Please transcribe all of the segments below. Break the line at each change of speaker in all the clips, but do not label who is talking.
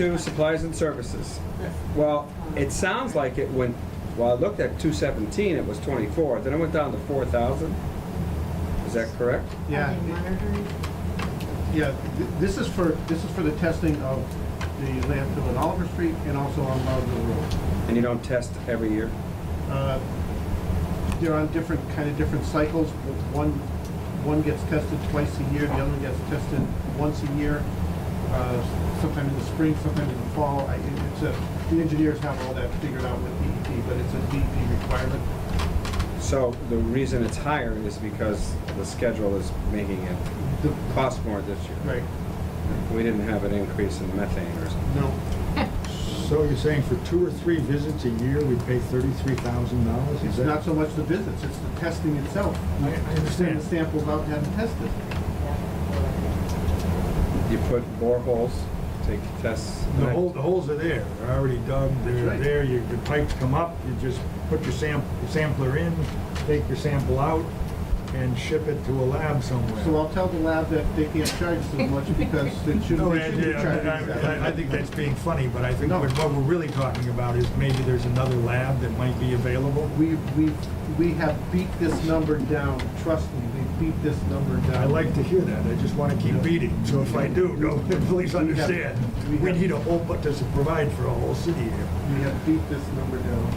Two, supplies and services. Well, it sounds like it when, well, I looked at two seventeen, it was twenty-four, then it went down to four thousand. Is that correct?
Yeah,
Are they monitoring?
yeah, th- this is for, this is for the testing of the landfill at Oliver Street and also on Loudon Road.
And you don't test every year?
Uh, They're on different, kind of different cycles. One, one gets tested twice a year, the other one gets tested once a year, uh, sometime in the spring, sometime in the fall. I- it- It's a, the engineers have all that figured out with DEP, but it's a DEP requirement.
So the reason it's higher is because the schedule is making it
The-
cost more this year.
Right,
We didn't have an increase in methane or something.
no,
So you're saying for two or three visits a year, we pay thirty-three thousand dollars?
it's not so much the visits, it's the testing itself.
I I
Send the
understand.
samples out and have them tested.
You put boreholes, take tests.
The hole, the holes are there, they're already dug, they're
right.
there, your, your pipes come up, you just put your sam, your sampler in, take your sample out, and ship it to a lab somewhere.
So I'll tell the lab that they can't charge as much because it shouldn't,
No, I,
they shouldn't be charging that.
I- I- I think that's being funny, but I think
No.
what, what we're really talking about is maybe there's another lab that might be available.
We, we, we have beat this number down, trust me, we beat this number down.
I like to hear that, I just wanna keep beating, so if I do, no, please understand,
we
we
have-
need a whole, but does it provide for a whole city here?
We have beat this number down.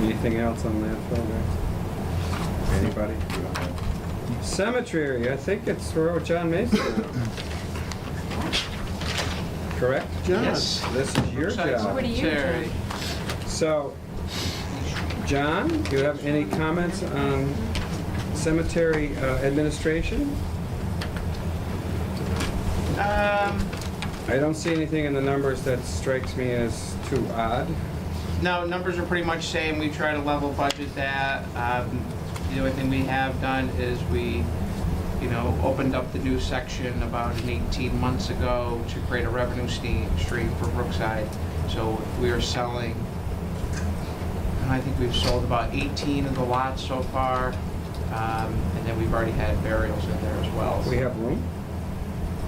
Anything else on landfill, guys? Anybody? Cemetery, I think it's where John Mason is. Correct?
John,
Yes.
This is your
Brookside
job.
What do you
Cemetery.
do?
So, John, do you have any comments on cemetery uh, administration?
Um,
I don't see anything in the numbers that strikes me as too odd.
no, numbers are pretty much same. We try to level budget that. Um, the only thing we have done is we, you know, opened up the new section about an 18 months ago to create a revenue ste- stream for Brookside. So we are selling, and I think we've sold about 18 of the lots so far. Um, and then we've already had burials in there as well.
We have room?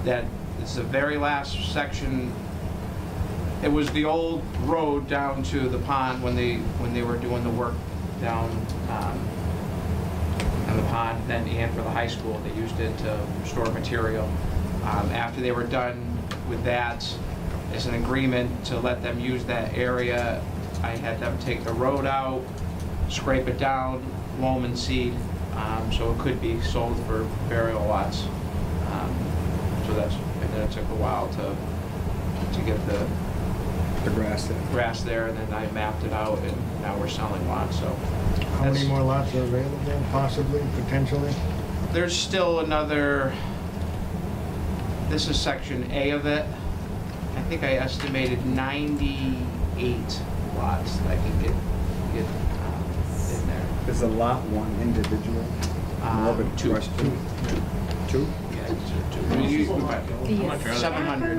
that it's the very last section. It was the old road down to the pond when they, when they were doing the work down, um, on the pond, then and for the high school, they used it to store material. Um, after they were done with that, as an agreement to let them use that area, I had them take the road out, scrape it down, loam and seed, um, so it could be sold for burial lots. Um, So that's, and then it took a while to, to get the
The grass there.
grass there, and then I mapped it out, and now we're selling lots, so.
How many
that's-
more lots are available, possibly, potentially?
There's still another, this is section A of it. I think I estimated 98 lots that I can get, get um, in there.
Is a lot one individual? More of
Um,
a
two.
question. Uh, Two?
Yeah, it's a two- I mean, you-
The
much are they? 700.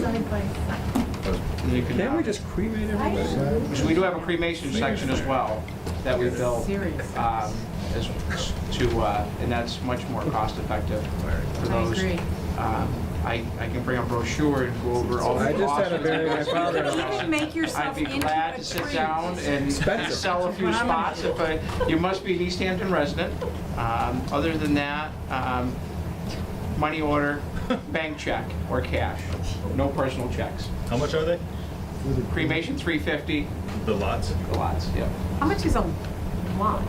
Side by side.
you can,
Can't
uh,
we just cremate everybody?
So we do have a cremation section as well that we built.
Serious.
um, As to, uh, and that's much more cost effective for
I
those.
agree.
Um, I, I can bring a brochure and go over all the
I
costs.
just had a very my father.
You can make
I'd
yourself
be
into a
glad to sit
tree.
down and
Expensive.
sell a few
That's what I'm
spots, if I, you must be an East Hampton resident. Um, Other than that, um, money order, bank check or cash, no personal checks.
How much are they?
Cremation, 350,
The lots?
the lots, yeah.
How much is a lot?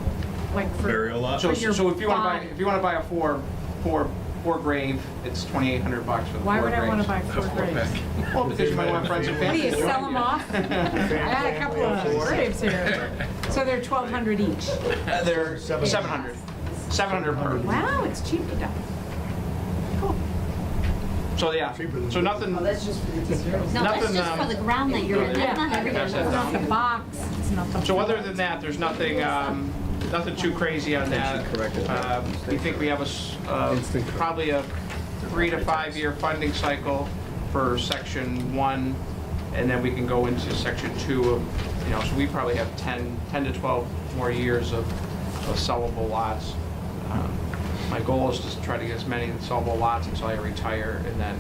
Like for?
Burial lot?
So,
For your
so if you want to buy,
body.
if you want to buy a four, four, four grave, it's 2,800 bucks for the four
Why
graves.
would I want to buy four graves?
Well, because you might want friends and
What do
family.
you,
to join
sell them
you.
off? I had a couple of graves here. So they're twelve hundred each.
Uh, They're 700, 700 per.
Wow, it's cheap to die. Cool.
So, yeah,
Cheaper than-
so nothing,
No, that's
Nothing,
just
um,
for the ground that you're in, that's not
Yeah,
everything.
it's not the box, it's not the.
So other than that, there's nothing, um, nothing too crazy on that.
corrected.
Um, We think we have a, s- uh,
Instant correct.
probably a three to five-year funding cycle for section one, and then we can go into section two of, you know, so we probably have 10, 10 to 12 more years of of sellable lots. Um, My goal is to try to get as many sellable lots until I retire, and then